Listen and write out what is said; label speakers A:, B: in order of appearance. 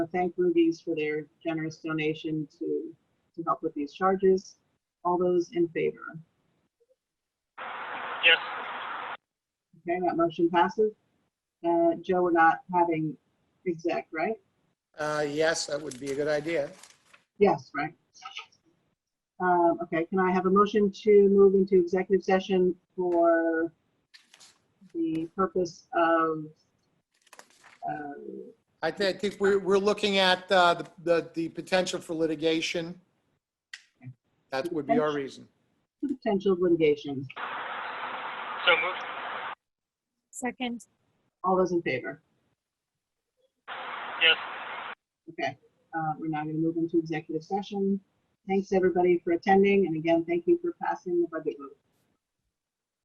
A: I thank Rudy's for their generous donation to, to help with these charges. All those in favor?
B: Yes.
A: Okay, that motion passes. Uh, Joe, we're not having exec, right?
C: Uh, yes, that would be a good idea.
A: Yes, right. Um, okay, can I have a motion to move into executive session for the purpose of, uh,
C: I thi- I think we're, we're looking at, uh, the- the, the potential for litigation. That would be our reason.
A: potential litigation?
B: So moved.
D: Second,
A: All those in favor?
B: Yes.
A: Okay, uh, we're now going to move into executive session. Thanks, everybody, for attending, and again, thank you for passing the budget vote.